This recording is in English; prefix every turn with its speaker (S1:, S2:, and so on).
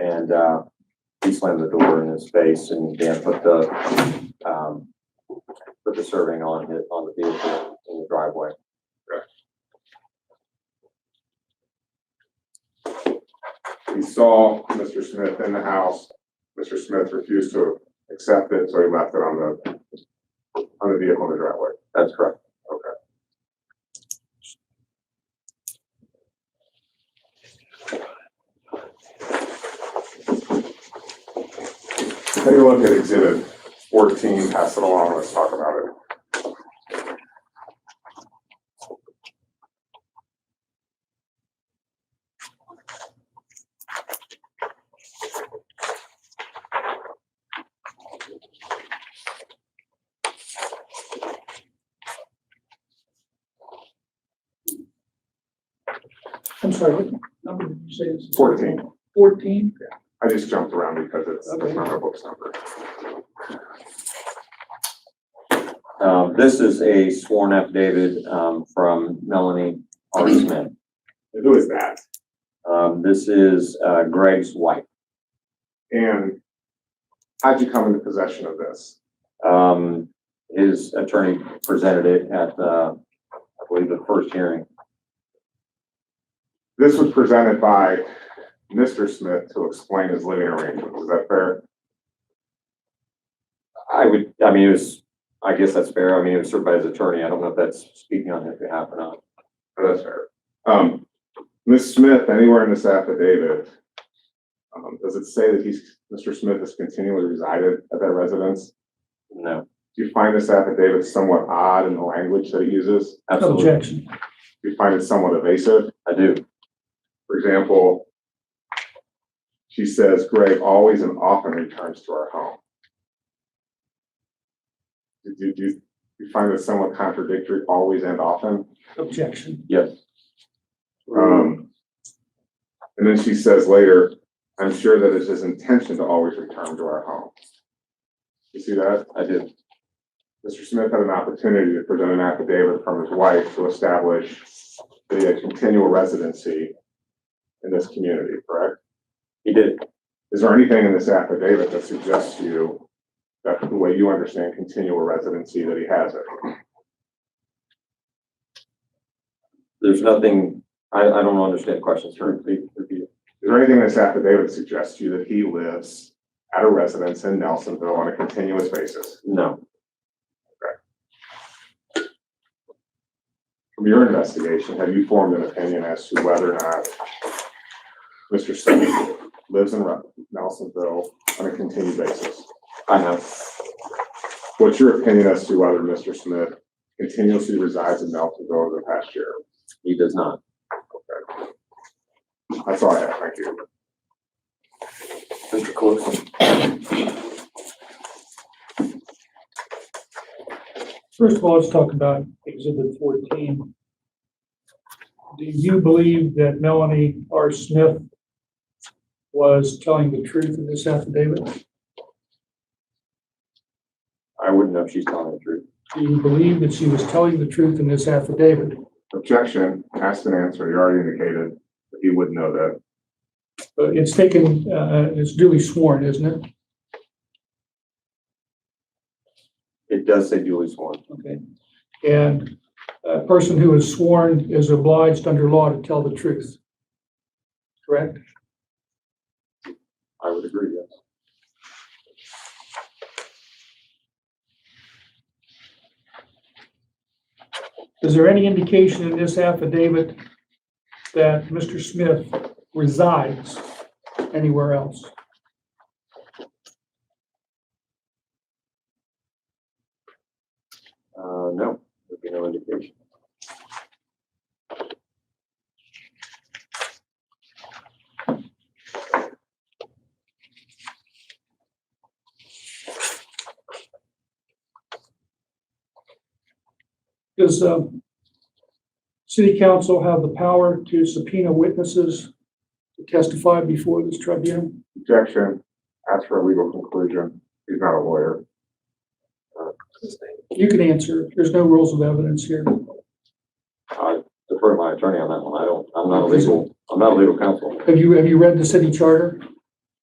S1: and, uh, he slammed the door in his face and Dan put the, um, put the serving on his, on the vehicle in the driveway.
S2: He saw Mr. Smith in the house. Mr. Smith refused to accept it, so he left it on the, on the vehicle in the driveway.
S1: That's correct.
S2: Take a look at exhibit fourteen, pass it along, let's talk about it.
S3: I'm sorry, what number did you say this is?
S2: Fourteen.
S3: Fourteen?
S2: I just jumped around because it's, it's not my book's number.
S1: Um, this is a sworn affidavit, um, from Melanie R. Smith.
S2: Who is that?
S1: Um, this is, uh, Greg's wife.
S2: And how'd you come into possession of this?
S1: Um, his attorney presented it at, uh, I believe the first hearing.
S2: This was presented by Mr. Smith to explain his living arrangements, is that fair?
S1: I would, I mean, it was, I guess that's fair. I mean, it was served by his attorney. I don't know if that's speaking on his behalf or not.
S2: Oh, That's fair. Um, Ms. Smith, anywhere in this affidavit, um, does it say that he's, Mr. Smith has continually resided at that residence?
S1: No,
S2: Do you find this affidavit somewhat odd in the language that it uses?
S1: absolutely.
S3: Objection.
S2: Do you find it somewhat evasive?
S1: I do.
S2: For example, she says Greg always and often returns to our home. Do you, do you- do you find that somewhat contradictory, always and often?
S3: Objection.
S1: Yes. Mm-hmm.
S2: Um, and then she says later, I'm sure that it's his intention to always return to our home. You see that?
S1: I do.
S2: Mr. Smith had an opportunity to present an affidavit from his wife to establish that he had continual residency in this community, correct?
S1: He did.
S2: Is there anything in this affidavit that suggests to you that the way you understand continual residency that he has it?
S1: There's nothing, I, I don't understand the question, sir. Please repeat it.
S2: Is there anything in this affidavit that suggests to you that he lives at a residence in Nelsonville on a continuous basis?
S1: No,
S2: From your investigation, have you formed an opinion as to whether or not Mr. Smith lives in Re- Nelsonville on a continued basis?
S1: I have.
S2: What's your opinion as to whether Mr. Smith continuously resides in Nelsonville over the past year?
S1: He does not.
S2: That's all I have. Thank you.
S1: Mr. Calypso?
S3: First of all, let's talk about exhibit fourteen. Do you believe that Melanie R. Smith was telling the truth in this affidavit?
S1: I wouldn't know if she's telling the truth.
S3: Do you believe that she was telling the truth in this affidavit?
S2: Objection, asked and answered. You already indicated that he would know that.
S3: But it's taken, uh, it's duly sworn, isn't it?
S1: It does say duly sworn.
S3: Okay. And a person who is sworn is obliged under law to tell the truth. Correct?
S1: I would agree, yes.
S3: Is there any indication in this affidavit that Mr. Smith resides anywhere else?
S1: Uh, no, there'd be no indication.
S3: Does, um, city council have the power to subpoena witnesses to testify before this tribunal?
S2: Objection, asked for a legal conclusion. He's not a lawyer.
S3: You can answer. There's no rules of evidence here.
S1: I defer to my attorney on that one. I don't, I'm not a legal, I'm not a legal counsel.
S3: Have you, have you read the city charter?